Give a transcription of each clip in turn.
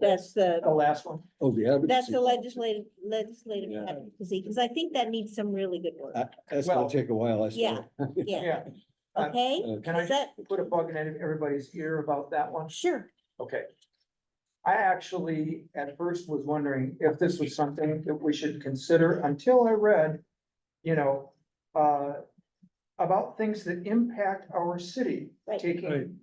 That's the, The last one. Oh, the advocacy. that's the legislative, legislative Yeah. advocacy, because I think that needs some really good work. Uh, That's gonna Well- take a while, I Yeah. suppose. Yeah, Yeah. uh, okay? Can I Is that, put a bug in everybody's ear about that one? sure, Okay. I actually at first was wondering if this was something that we should consider until I read, you know, uh, about things that impact our city Right. Right. taking.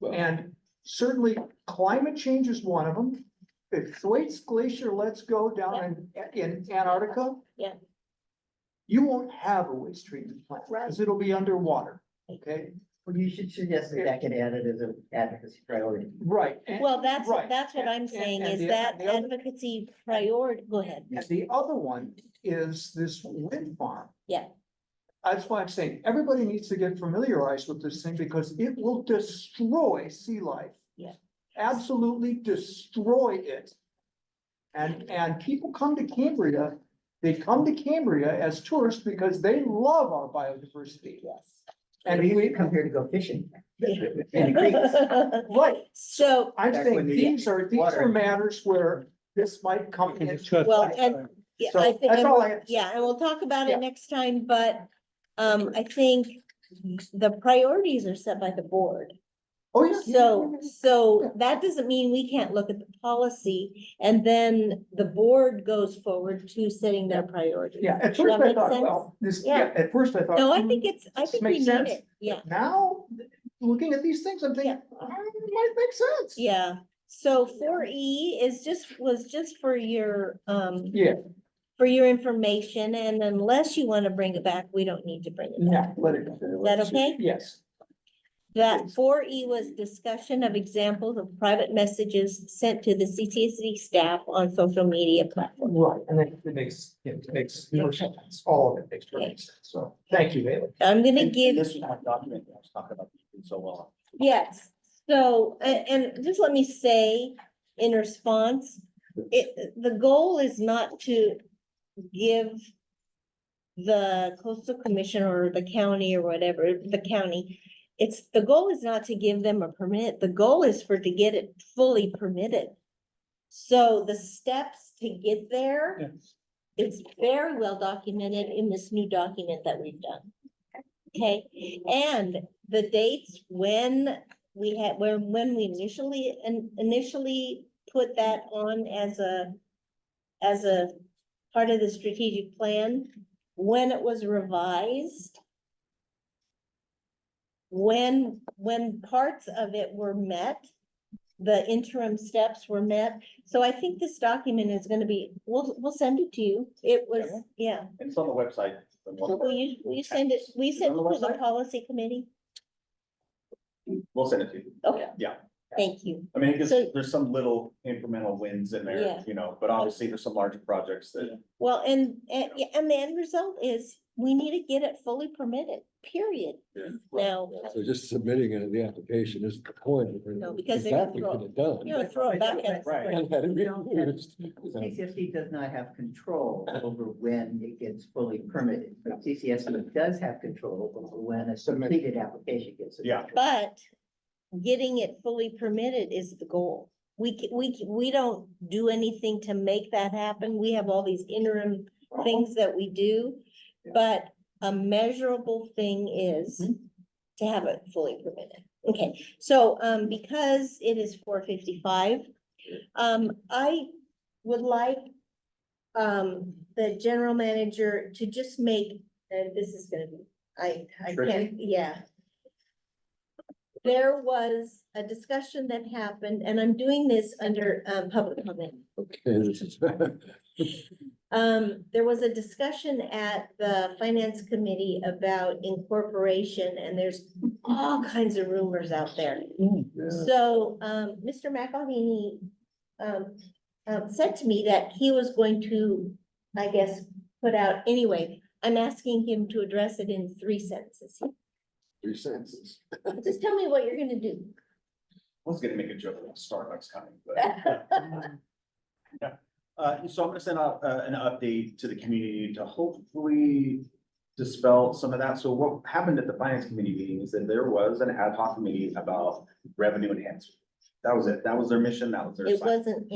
Well- And certainly climate change is one of them. If Thwaites Glacier lets go down in, in Antarctica. Yeah. You won't have a waste treatment plant because it'll be underwater, okay? Well, you should suggest that that get added as an advocacy priority. Right. and- well, that's, right. that's what I'm And- saying, and is the- that the other- advocacy priority, go ahead. And the other one is this wind farm. Yeah. That's why I'm saying, everybody needs to get familiarized with this thing because it will destroy sea life. Yeah. Absolutely destroy it. And, and people come to Cambria, they come to Cambria as tourists because they love our biodiversity. Yes. And And we we, come here to go fishing. Yeah. And creeks. right, So, I'm Back saying when you- these are, these Water. are matters where this might come in. well, and, yeah, So I think, that's I'm- all I have to say. yeah, and we'll talk about Yeah. it next time, but, um, I think the priorities are set by the board. Oh, yeah. So, so that doesn't mean we can't look at the policy and then the board goes forward to setting their priorities. Yeah, at Does that first I make thought, sense? well, this, Yeah. yeah, at first I thought. No, I hmm, think it's, I This think we makes need sense. it. Yeah, Now, looking at these things, I'm thinking, Yeah. "Ah, it might make sense. yeah. So four E is just, was just for your, um, Yeah, for your information and unless you want to bring it back, we don't need to bring it back. yeah, let it go. Is that okay? Yes, That four E was discussion of examples of private messages sent to the CTC staff on social media platforms. right, and then it makes, it makes perfect sense, all of it makes perfect sense, so, thank you, Bailey. I'm gonna And- give and This is not documented, I was talking about it so well. Yes, so, a- and just let me say in response, it, the goal is not to give the coastal commission or the county or whatever, the county, it's, the goal is not to give them a permit, the goal is for to get it fully permitted. So the steps to get there, it's very well documented in this new document that we've done. Okay, and the dates when we had, when, when we initially, in- initially put that on as a, as a part of the strategic plan, when it was revised, when, when parts of it were met, the interim steps were met. So I think this document is gonna be, we'll, we'll send it to you. It was, yeah. It's on the website. the one- Will you, will you send it, will you Is it send on it the to the website? policy committee? We'll send it to you. Okay. Yeah, Thank you. I mean, it gives- So- there's some little incremental wins in there, Yeah. you know, but obviously there's some larger projects that, Well, and, and, yeah, and the end result is we need to get it fully permitted, period. Yeah. Now, So just submitting it in the application is the point. No, because they're Exactly gonna what it done. you know, throw it back at us. right, And had it You don't have- reused. So, CCSD does not have control over when it gets fully permitted, but CCSD does have control over when a completed application gets. submitted. Yeah. But getting it fully permitted is the goal. We, ca- we, ca- we don't do anything to make that happen. We have all these interim things that we do. But a measurable thing is to have it fully permitted. Okay, so, um, because it is four fifty-five, um, I would like um, the general manager to just make, and this is gonna be, I, I can't, yeah. There was a discussion that happened, and I'm doing this under, um, public comment. Okay, this is- Um, there was a discussion at the finance committee about incorporation, and there's all kinds of rumors out there. Mm, Yeah. So, um, Mr. McElhaney, um, um, said to me that he was going to, I guess, put out, anyway, I'm asking him to address it in three sentences. Three sentences. Just tell me what you're gonna do. I was gonna make a joke about Starbucks coming, but. Uh, so I'm gonna send out, uh, an update to the community to hopefully dispel some of that. So what happened at the finance committee meeting is that there was an ad hoc committee about revenue enhancement. That was it. That was their mission. That was their. It assignment. wasn't